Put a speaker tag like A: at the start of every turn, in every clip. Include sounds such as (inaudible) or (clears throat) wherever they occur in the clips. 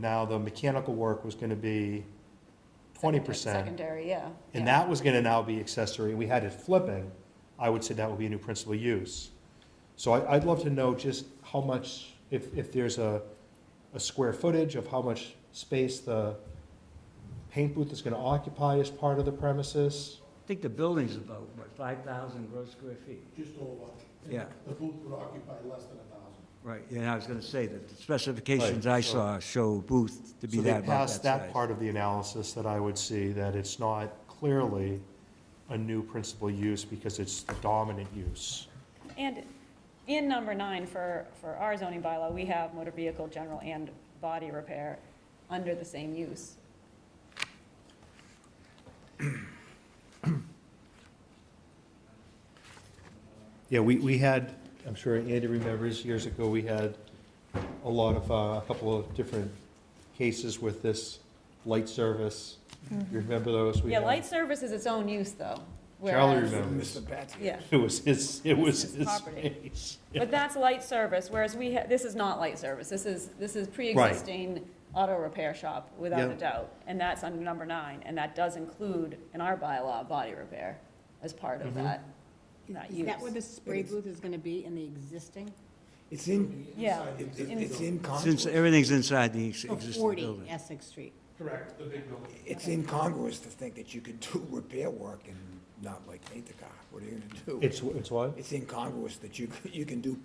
A: Now, the mechanical work was gonna be twenty percent,
B: Secondary, yeah.
A: and
B: yeah.
A: that was gonna now be accessory, and we had it flipping, I would say that would be a new principal use. So I, I'd love to know just how much, if, if there's a, a square footage of how much space the paint booth is gonna occupy as part of the premises.
C: I think the building's about, what, 5,000 gross square feet?
D: just over.
C: Yeah.
D: The booth would occupy less than a thousand.
C: Right, and I was going to say that the specifications I
A: so-
C: saw show booth to be
A: So they
C: that about
A: passed
C: that
A: that
C: size.
A: part of the analysis that I would see, that it's not clearly a new principal use because it's the dominant use.
E: And in number nine, for, for our zoning bylaw, we have motor vehicle, general and body repair under the same use.
A: Yeah, we, we had, I'm sure Andy remembers, years ago, we had a lot of, uh, a couple of different cases with this light service. You remember those? We
E: Mm-hmm. Yeah,
A: had-
E: light service is its own use, though.
A: Charlie
E: whereas-
A: remembers.
E: Yeah,
A: (laughs) It was his, it was
E: his
A: his
E: property.
A: space.
E: but that's light service, whereas we, ha- this is not light service. This is, this is pre-existing auto repair shop, without
A: Yeah.
E: a doubt. And that's under number nine, and that does include, in our bylaw, body repair as part of
A: Mhm.
E: that, that
B: Is
E: use.
B: that where the spray
F: It is.
B: booth is gonna be, in the existing?
F: It's in,
E: Yeah.
F: it- it-
E: In-
F: it's in
C: Since
F: congruence,
C: everything's inside the ex-
B: Oh,
C: existing
B: Forty
C: building.
B: Essex Street.
D: Correct, the big building.
F: it's incongruous to think that you could do (laughs) repair work and not like paint the car. What are you gonna do?
A: It's, it's what?
F: It's incongruous that you, c- you can do,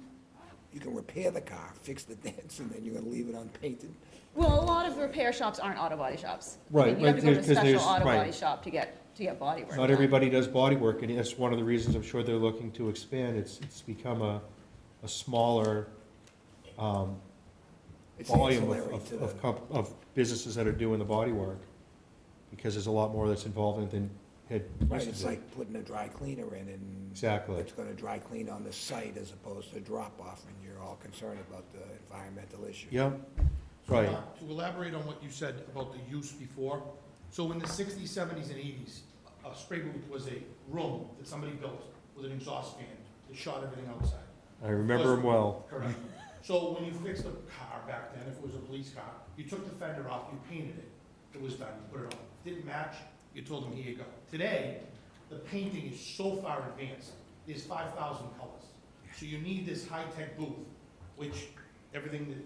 F: you can repair the car, fix the dents, and then you're gonna leave it unpainted.
E: Well, a lot of repair shops aren't auto body shops.
A: Right,
E: You have
A: but
E: to go to a
A: there's- 'cause
E: special
A: there's-
E: auto
A: right.
E: body shop to get, to get body work.
A: Not
E: done.
A: everybody does body work, and that's one of the reasons I'm sure they're looking to expand. It's, it's become a, a smaller, um,
F: It's
A: volume of,
F: ancillary
A: of,
F: to the-
A: of comp- of businesses that are doing the body work. Because there's a lot more that's involved than had.
F: Right,
A: used to
F: it's
A: be.
F: like putting a dry cleaner in and
A: Exactly.
F: it's gonna dry clean on the site as opposed to drop off, and you're all concerned about the environmental issue.
A: Yep,
D: So,
A: Right.
D: uh, To elaborate on what you said about the use before, so in the sixties, seventies, and eighties, a spray booth was a room that somebody built with an exhaust fan that shot everything outside.
A: I remember them well.
D: Correct. So when you fixed a car back then, if it was a police car, you took the fender off, you painted it, it was done, you put it on. Didn't match, you told them, here you go. Today, the painting is so far advanced, there's five thousand colors. So you need this high-tech booth, which everything that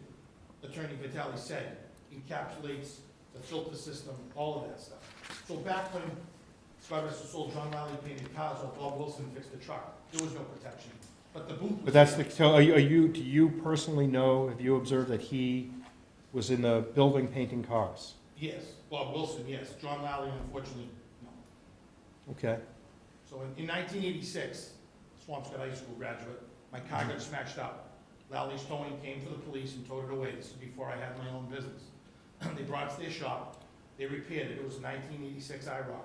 D: Attorney Vitale said encapsulates the filter system, all of that stuff. So back when Scott Mr. sold John Riley painted cars, or Bob Wilson fixed the truck, there was no protection. But the booth was.
A: But that's the, so are you, are you, do you personally know, have you observed that he was in the building painting cars?
D: Yes, Bob Wilson, yes. John Lally, unfortunately, no.
A: Okay,
D: So in, in nineteen eighty-six, Swampscott High School graduate, my car got smashed up. Lally Stone came for the police and towed it away. This is before I had my own business. (clears throat) They brought it to their shop, they repaired it. It was a nineteen eighty-six IROC.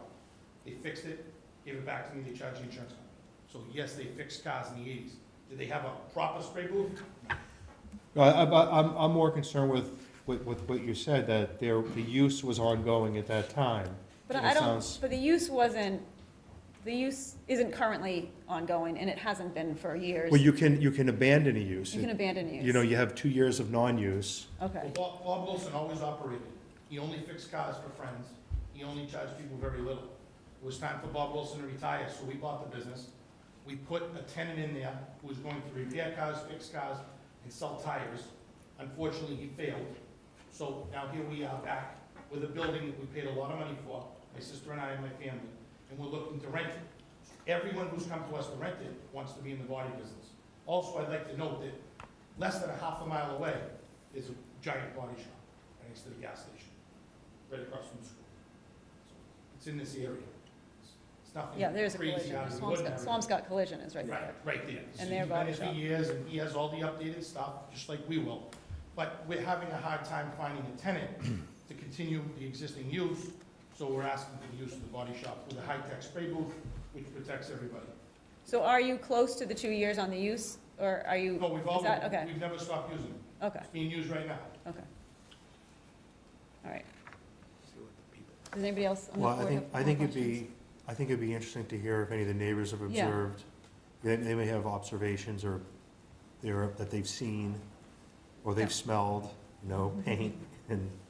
D: They fixed it, gave it back to me, they charged the insurance company. So yes, they fixed cars in the eighties. Did they have a proper spray booth?
A: No, I, I, I'm, I'm more concerned with, with, with what you said, that there, the use was ongoing at that time.
E: But
A: And
E: I
A: it
E: don't,
A: sounds-
E: but the use wasn't, the use isn't currently ongoing, and it hasn't been for years.
A: Well, you can, you can abandon a use.
E: You can abandon use.
A: You know, you have two years of non-use.
E: Okay,
D: Well, Bob, Bob Wilson always operated. He only fixed cars for friends. He only charged people very little. It was time for Bob Wilson to retire, so we bought the business. We put a tenant in there who was going to repair cars, fix cars, and sell tires. Unfortunately, he failed. So now here we are back with a building that we paid a lot of money for, my sister and I and my family, and we're looking to rent it. Everyone who's come to us to rent it wants to be in the body business. Also, I'd like to note that less than a half a mile away, is a giant body shop right next to the gas station, right across from the school. So It's in this area. It's- It's nothing
E: yeah, there's a
D: crazy
E: collision.
D: out of the
E: Swampscott,
D: ordinary.
E: Swampscott Collision is right there.
D: Right, right there. So
E: And their
D: he's
E: body
D: been there
E: shop.
D: for years, and he has all the updated stuff, just like we will. But we're having a hard time finding a
E: (clears throat)
D: tenant to continue the existing use, so we're asking for the use of the body shop with a high-tech spray booth, which protects everybody.
E: So are you close to the two years on the use, or are you,
D: But we've
E: is that,
D: always,
E: okay,
D: we've never stopped using it.
E: okay,
D: It's being used right now.
E: okay. All right,
F: See what the people-
E: does anybody else on the
A: Well, I
E: board
A: think,
E: have
A: I
E: more
A: think it'd
E: questions?
A: be, I think it'd be interesting to hear if any of the neighbors have
E: Yeah.
A: observed. They, they may have observations or they're, that they've seen, or
E: Yeah. Mm-hmm.
A: they've smelled, you know, paint and